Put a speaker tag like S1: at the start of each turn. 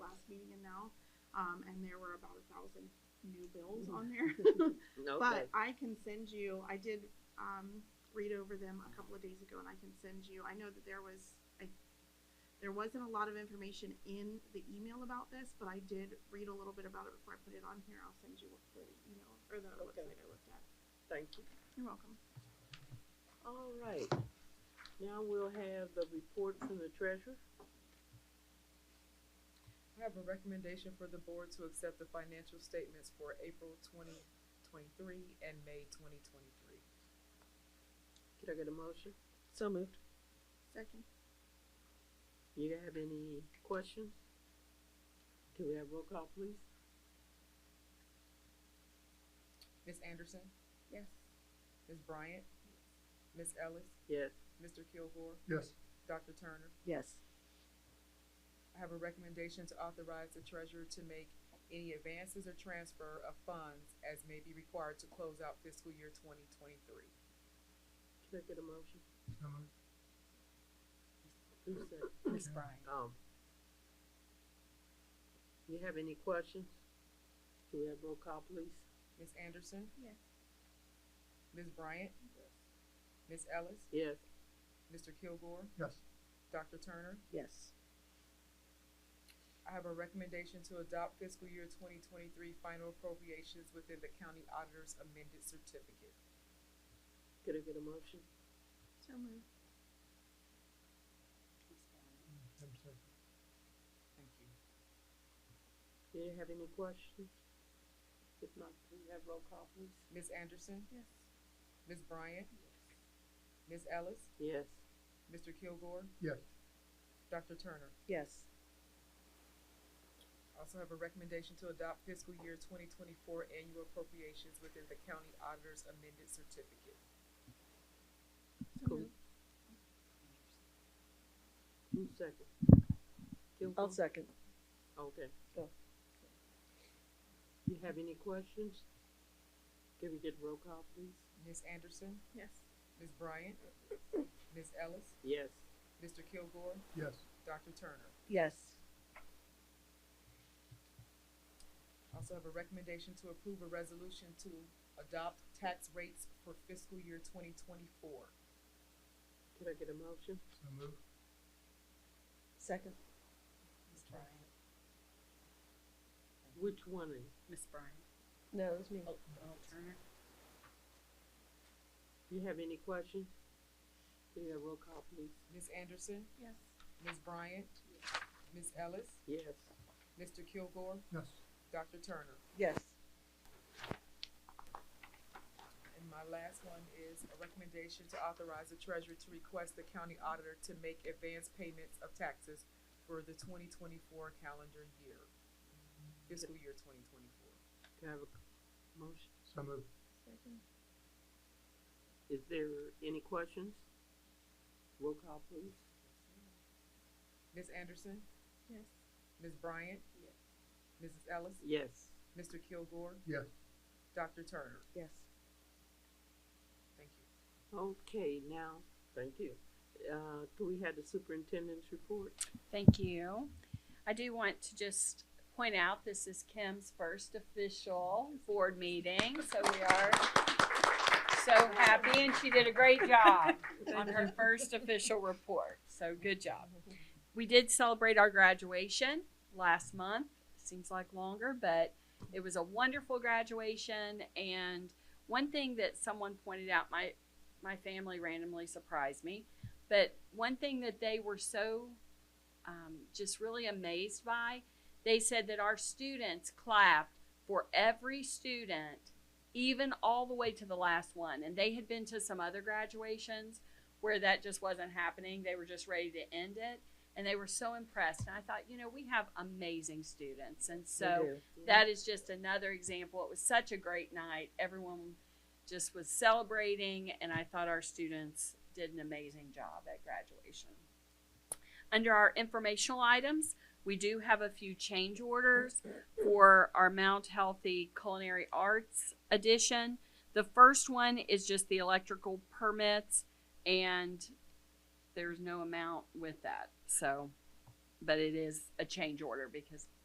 S1: um, and there were about a thousand new bills on there.
S2: Okay,
S1: But I can send you, I did, um, read over them a couple of days ago and I can send you, I know that there was, I, there wasn't a lot of information in the email about this, but I did read a little bit about it before I put it on here. I'll send you what the email, or the
S2: Okay.
S1: website I looked at.
S2: thank you.
S1: You're welcome.
S2: All right. Now we'll have the report from the treasurer.
S3: I have a recommendation for the board to accept the financial statements for April twenty twenty-three and May twenty twenty-three.
S2: Can I get a motion? So moved.
S1: Second,
S2: You have any questions? Can we have roll call, please?
S3: Ms. Anderson,
S1: yes.
S3: Ms. Bryant, Ms. Ellis,
S2: Yes.
S3: Mr. Kilgore,
S4: Yes,
S3: Dr. Turner.
S2: Yes.
S3: I have a recommendation to authorize the treasurer to make any advances or transfer of funds as may be required to close out fiscal year twenty twenty-three.
S2: Can I get a motion?
S4: so moved.
S2: Who said?
S3: Ms. Bryant.
S2: Um. You have any questions? Can we have roll call, please?
S3: Ms. Anderson?
S1: Yes.
S3: Ms. Bryant? Ms. Ellis,
S2: Yes.
S3: Mr. Kilgore,
S4: yes,
S3: Dr. Turner?
S2: Yes.
S3: I have a recommendation to adopt fiscal year twenty twenty-three final appropriations within the county auditor's amended certificate.
S2: Can I get a motion?
S1: So moved.
S4: I'm sorry.
S3: Thank you.
S2: Do you have any questions? If not, can we have roll call, please?
S3: Ms. Anderson,
S1: Yes.
S3: Ms. Bryant, Ms. Ellis,
S2: Yes.
S3: Mr. Kilgore,
S4: yes,
S3: Dr. Turner.
S2: Yes.
S3: Also have a recommendation to adopt fiscal year twenty twenty-four annual appropriations within the county auditor's amended certificate.
S1: So
S2: Cool.
S1: moved.
S2: Who's second? Gilmore?
S5: I'll second.
S2: Okay.
S5: Go.
S2: You have any questions? Can we get roll call, please?
S3: Ms. Anderson,
S1: Yes.
S3: Ms. Bryant, Ms. Ellis,
S2: Yes.
S3: Mr. Kilgore,
S4: yes,
S3: Dr. Turner.
S5: Yes.
S3: Also have a recommendation to approve a resolution to adopt tax rates for fiscal year twenty twenty-four.
S2: Can I get a motion?
S4: so moved.
S5: Second.
S3: Ms. Bryant.
S2: Which one is?
S3: Ms. Bryant.
S5: No, it was
S3: Oh.
S5: me.
S3: Turner.
S2: You have any questions? Can you have roll call, please?
S3: Ms. Anderson,
S1: Yes.
S3: Ms. Bryant, Ms. Ellis,
S2: Yes.
S3: Mr. Kilgore,
S4: Yes,
S3: Dr. Turner.
S5: Yes.
S3: And my last one is a recommendation to authorize the treasurer to request the county auditor to make advance payments of taxes for the twenty twenty-four calendar year, fiscal year twenty twenty-four.
S2: Can I have a c- motion?
S4: so moved.
S1: Second,
S2: Is there any questions? Roll call, please.
S3: Ms. Anderson,
S1: yes.
S3: Ms. Bryant, Mrs. Ellis,
S2: Yes.
S3: Mr. Kilgore,
S4: Yes,
S3: Dr. Turner.
S5: Yes.
S3: Thank you.
S2: Okay, now, thank you. Uh, can we have the superintendent's report?
S6: Thank you. I do want to just point out this is Kim's first official board meeting, so we are so happy, and she did a great job on her first official report. So good job. We did celebrate our graduation last month. Seems like longer, but it was a wonderful graduation. And one thing that someone pointed out, my my family randomly surprised me, but one thing that they were so um, just really amazed by. They said that our students clapped for every student, even all the way to the last one. And they had been to some other graduations where that just wasn't happening. They were just ready to end it. And they were so impressed. And I thought, you know, we have amazing students. And so that is just another example. It was such a great night. Everyone just was celebrating, and I thought our students did an amazing job at graduation. Under our informational items, we do have a few change orders for our Mount Healthy Culinary Arts edition. The first one is just the electrical permits, and there's no amount with that. So, but it is a change order because